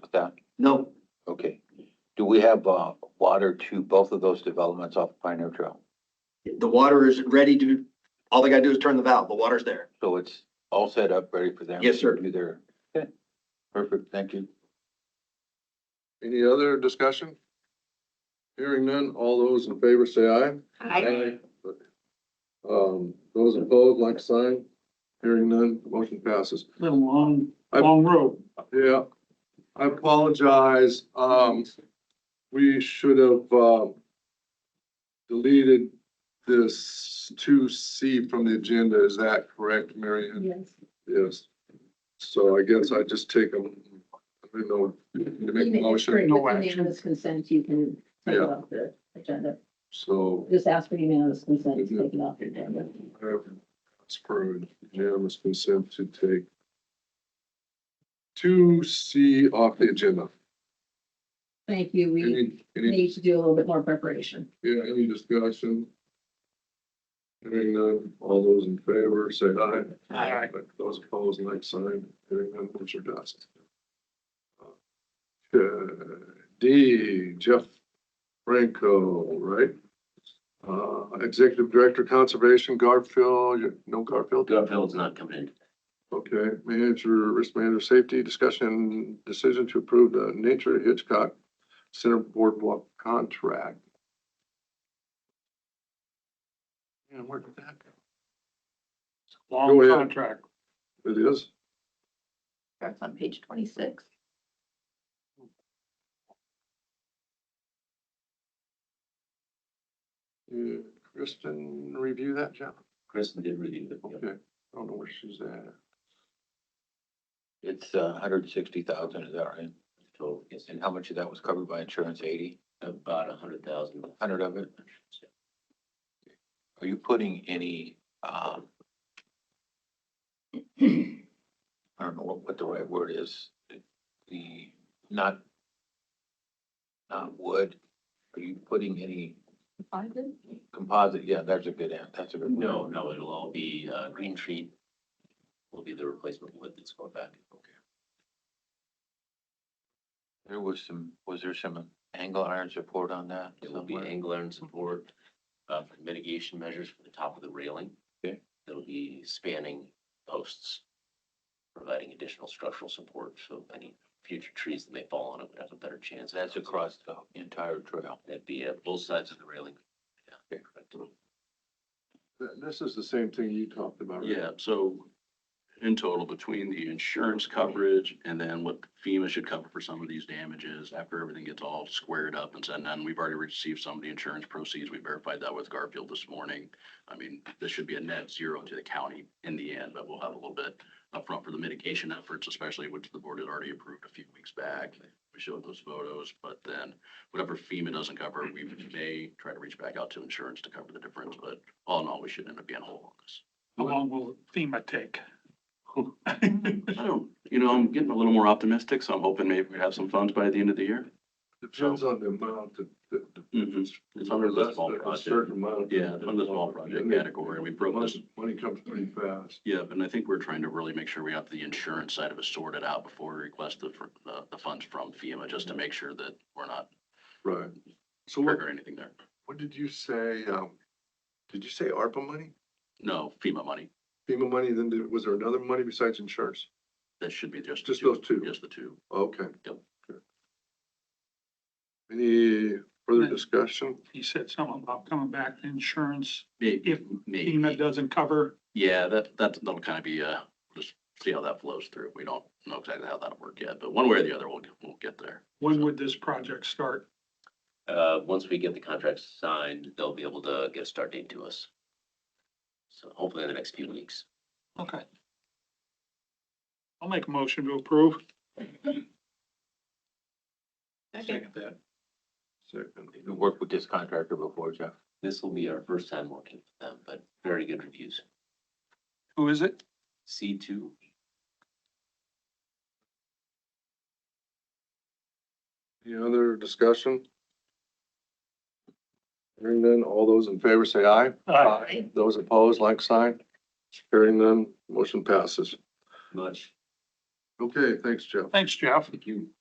with that? No, Okay. Do we have, uh, water to both of those developments off Pioneer Trail? the water is ready to, all they gotta do is turn the valve. The water's there. So it's all set up, ready for them? Yes, sir. to Do their, okay, perfect, thank you. Any other discussion? Hearing none, all those in favor say aye. Aye. Um, those opposed, like sign. Hearing none, motion passes. Been a long, I- long road. Yeah, I apologize. Um, we should have, um, deleted this two C from the agenda. Is that correct, Mary Ann? Yes. Yes. So I guess I just take them, I don't know, to make a Even if it's motion, with no Unanimous consent, you can take it Yeah. off the agenda. so. Just ask for unanimous consent to take it off the agenda. It's for unanimous consent to take two C off the agenda. Thank you. We Any, any, need to do a little bit more preparation. yeah, any discussion? Hearing none, all those in favor, say aye. Aye. Those opposed, like sign, hearing none, motion passed. Uh, D, Jeff Franco, right? Uh, Executive Director Conservation, Garfield, you- no Garfield? Garfield's not coming in. Okay, manager, risk manager, safety, discussion, decision to approve the Nature Hitchcock Center Boardwalk contract. And where did that Go Long ahead. contract. go? It is? Starts on page twenty-six. Yeah, Kristen, review that, Jeff? Kristen did review it. yeah. Okay, I don't know where she's at. It's, uh, hundred and sixty thousand, is that right? Total, yes, And how much of that was covered by insurance, eighty, about a hundred thousand. hundred of it? Are you putting any, um, I don't know what, what the right word is, the, not, not wood, are you putting any Find it? composite, yeah, that's a good, an- that's a good. No, no, it'll all be, uh, green tree will be the replacement wood that's going back. There was some, was there some angle iron support on that? It will be somewhere? angle iron support, uh, for mitigation measures for the top of the railing. Okay. It'll be spanning posts, providing additional structural support, so any future trees that may fall on it would have a better chance. That's across the entire trail. That'd be at both sides of the railing. Yeah, Okay. correct. Th- This is the same thing you talked about. right? Yeah, so in total, between the insurance coverage and then what FEMA should cover for some of these damages, after everything gets all squared up and said and done, we've already received some of the insurance proceeds. We verified that with Garfield this morning. I mean, this should be a net zero to the county in the end, but we'll have a little bit upfront for the mitigation efforts, especially which the board had already approved a few weeks back. We showed those photos, but then whatever FEMA doesn't cover, we may try to reach back out to insurance to cover the difference, but all in all, we should end up being whole on this. How long will FEMA take? I don't, you know, I'm getting a little more optimistic, so I'm hoping maybe we have some funds by the end of the year. Depends on the amount that, that. that- It's under that's the small a project. Certain amount. Yeah, it's under the small project category, and we broke this. Money comes pretty fast. Yeah, and I think we're trying to really make sure we have the insurance side of it sorted out before we request the, fr- the, the funds from FEMA, just to make sure that we're not Right. So what, triggering anything there. what did you say, um, did you say ARPA money? No, FEMA money. FEMA money, then did- was there another money besides insurance? That should be just. the Just those two. Just the two. Okay. Yep. Good. Any further Yeah. discussion? He said something about coming back to insurance. May- If FEMA Maybe. doesn't cover, Yeah, that, that, that'll kind of be, uh, just see how that flows through. We don't know exactly how that'll work yet, but one way or the other, we'll, we'll get there. when would this project start? Uh, once we get the contract signed, they'll be able to get a start date to us. So hopefully in the next few weeks. Okay. I'll make a motion to approve. Second. You worked with this contractor before, Jeff? This will be our first time working with them, but very good reviews. Who is it? C two. Any other discussion? Hearing none, all those in favor say aye. Uh, Those opposed, like sign. Hearing none, motion passes. Much. Okay, thanks, Jeff. Thanks, Jeff. Thank you.